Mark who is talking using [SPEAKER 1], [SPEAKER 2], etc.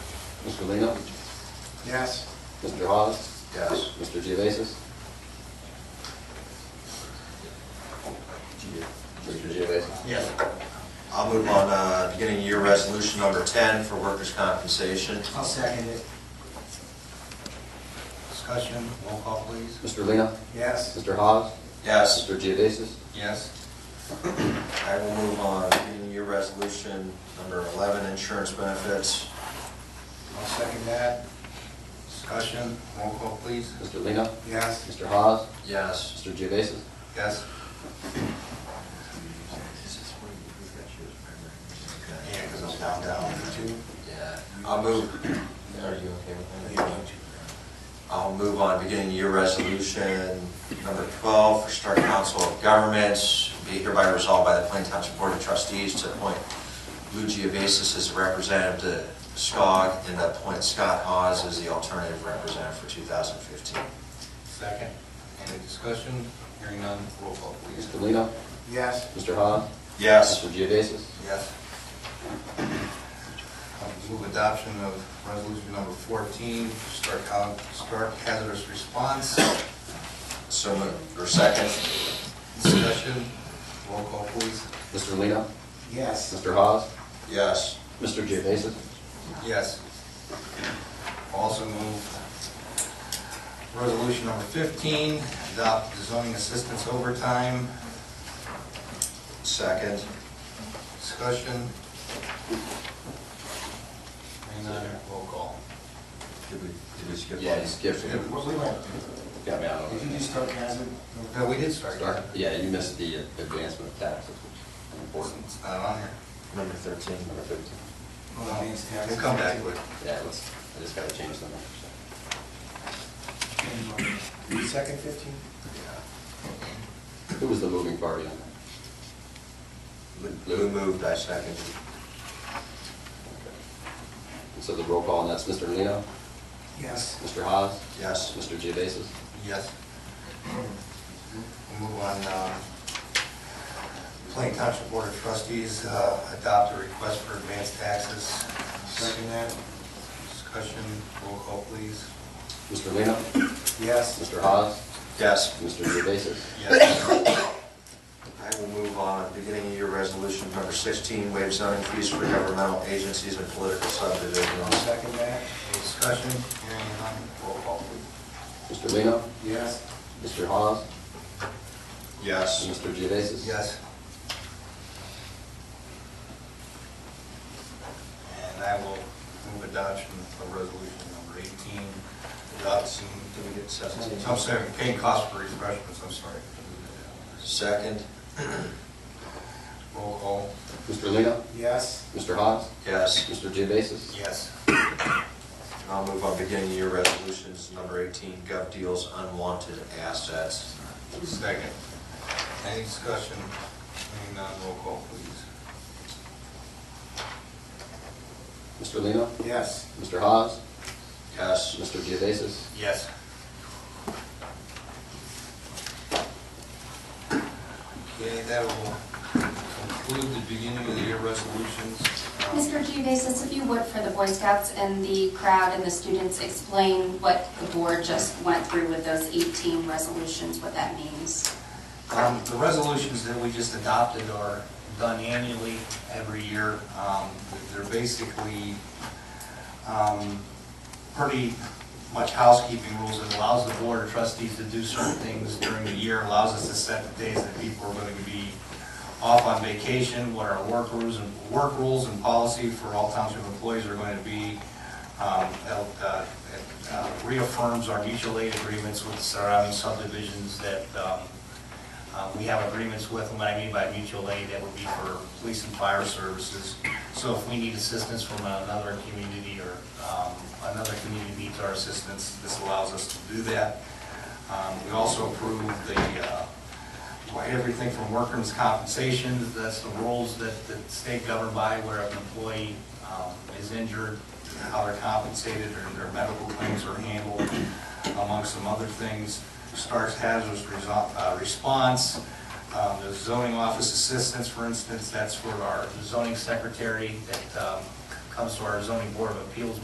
[SPEAKER 1] Mr. Lino?
[SPEAKER 2] Yes.
[SPEAKER 1] Mr. Hawes?
[SPEAKER 2] Yes.
[SPEAKER 1] Mr. Geovasis? Mr. Geovasis?
[SPEAKER 2] Yes.
[SPEAKER 3] I'll move on, uh, beginning of year resolution number 10 for workers' compensation.
[SPEAKER 2] I'll second it. Discussion, roll call please.
[SPEAKER 1] Mr. Lino?
[SPEAKER 2] Yes.
[SPEAKER 1] Mr. Hawes?
[SPEAKER 3] Yes,
[SPEAKER 1] Mr. Geovasis?
[SPEAKER 2] Yes.
[SPEAKER 3] I will move on, beginning of year resolution number 11, insurance benefits.
[SPEAKER 2] I'll second that. Discussion, roll call please.
[SPEAKER 1] Mr. Lino?
[SPEAKER 2] Yes.
[SPEAKER 1] Mr. Hawes?
[SPEAKER 3] Yes.
[SPEAKER 1] Mr. Geovasis?
[SPEAKER 2] Yes. Yeah, because I'm down, down. Two.
[SPEAKER 3] Yeah, I'll move, are you okay with that? I'll move on, beginning of year resolution number 12 for Stark Council of Governments, be hereby resolved by the Plain Township Board of Trustees to appoint Lou Geovasis as a representative to SCOG and to appoint Scott Hawes as the alternative representative for 2015.
[SPEAKER 2] Second. Any discussion? Hearing none, roll call please.
[SPEAKER 1] Mr. Lino?
[SPEAKER 2] Yes.
[SPEAKER 1] Mr. Hawes?
[SPEAKER 3] Yes,
[SPEAKER 1] Mr. Geovasis?
[SPEAKER 2] Yes. I'll Move adoption of resolution number 14, Stark Hou- Stark hazardous response.
[SPEAKER 3] so moved, or second?
[SPEAKER 2] Discussion, roll call please.
[SPEAKER 1] Mr. Lino?
[SPEAKER 2] Yes.
[SPEAKER 1] Mr. Hawes?
[SPEAKER 3] Yes.
[SPEAKER 1] Mr. Geovasis?
[SPEAKER 2] Yes. Also move resolution number 15, adopt the zoning assistance overtime.
[SPEAKER 3] Second?
[SPEAKER 2] Discussion. Hearing none, roll call.
[SPEAKER 3] Did we, did we skip one?
[SPEAKER 1] Yeah, you skipped it. Got me out
[SPEAKER 4] Did
[SPEAKER 1] of
[SPEAKER 4] you
[SPEAKER 1] it.
[SPEAKER 4] just start hazard?
[SPEAKER 2] No, we did start.
[SPEAKER 1] Start- Yeah, you missed the advancement of taxes, which is important.
[SPEAKER 2] It's not on here.
[SPEAKER 3] Number 13.
[SPEAKER 1] Number 15.
[SPEAKER 4] Well, that means
[SPEAKER 2] We'll come back to it.
[SPEAKER 1] Yeah, let's, I just gotta change the number.
[SPEAKER 4] Second fifteen?
[SPEAKER 1] Who was the moving party on that?
[SPEAKER 3] Lou moved, I seconded.
[SPEAKER 1] And So the roll call, and that's Mr. Lino,
[SPEAKER 4] Yes.
[SPEAKER 1] Mr. Haas,
[SPEAKER 3] Yes.
[SPEAKER 1] Mr. Geovasis.
[SPEAKER 2] Yes. We'll move on, uh, Plain Township Board of Trustees, uh, adopt a request for advanced taxes. Second that. Discussion, roll call please.
[SPEAKER 1] Mr. Lino,
[SPEAKER 2] Yes.
[SPEAKER 1] Mr. Haas,
[SPEAKER 3] Yes.
[SPEAKER 1] Mr. Geovasis.
[SPEAKER 2] Yes.
[SPEAKER 3] I will move on, beginning of year resolution number 16, waive zoning fees for governmental agencies and political subdivisions.
[SPEAKER 2] Second that. Discussion, hearing none, roll call please.
[SPEAKER 1] Mr. Lino,
[SPEAKER 2] Yes.
[SPEAKER 1] Mr. Haas, and
[SPEAKER 3] Yes.
[SPEAKER 1] Mr. Geovasis.
[SPEAKER 2] Yes. And I will move adoption of resolution number 18, adopting,
[SPEAKER 3] Did we get 17?
[SPEAKER 2] I'm sorry, paying costs for refreshments, I'm sorry.
[SPEAKER 3] Second?
[SPEAKER 2] Roll call.
[SPEAKER 1] Mr. Lino,
[SPEAKER 2] Yes.
[SPEAKER 1] Mr. Haas,
[SPEAKER 3] Yes.
[SPEAKER 1] Mr. Geovasis.
[SPEAKER 2] Yes.
[SPEAKER 3] I'll move on, beginning of year resolutions number 18, gov deals unwanted assets.
[SPEAKER 2] Second. Any discussion? Hearing none, roll call, please.
[SPEAKER 1] Mr. Lino,
[SPEAKER 2] Yes.
[SPEAKER 1] Mr. Haas,
[SPEAKER 3] Yes.
[SPEAKER 1] Mr. Geovasis.
[SPEAKER 2] Yes. Okay, that will conclude the beginning of the year resolutions. Um,
[SPEAKER 5] Mr. Geovasis, if you would, for the Boy Scouts and the crowd and the students, explain what the board just went through with those 18 resolutions, what that means.
[SPEAKER 2] Um, The resolutions that we just adopted are done annually, every year. Um, They're basically um, pretty much housekeeping rules. It allows the board of trustees to do certain things during the year, allows us to set the days that people are going to be off on vacation, what our work rules and, work rules and policy for all township employees are going to be. Um, it, uh, it, uh, Reaffirms our mutual aid agreements with surrounding subdivisions that um, uh, We have agreements with them, what I mean by mutual aid, that would be for police and fire services. So if we need assistance from another community or um, another community needs our assistance, this allows us to do that. Um, We also approve the, uh, why everything from workers' compensation, that's the rules that the state governed by where an employee um, is injured, how they're compensated, or their medical claims are handled, amongst some other things. Stark's hazardous reso- uh, response, um, the zoning office assistance, for instance, that's for our zoning secretary that um, comes to our zoning board of appeals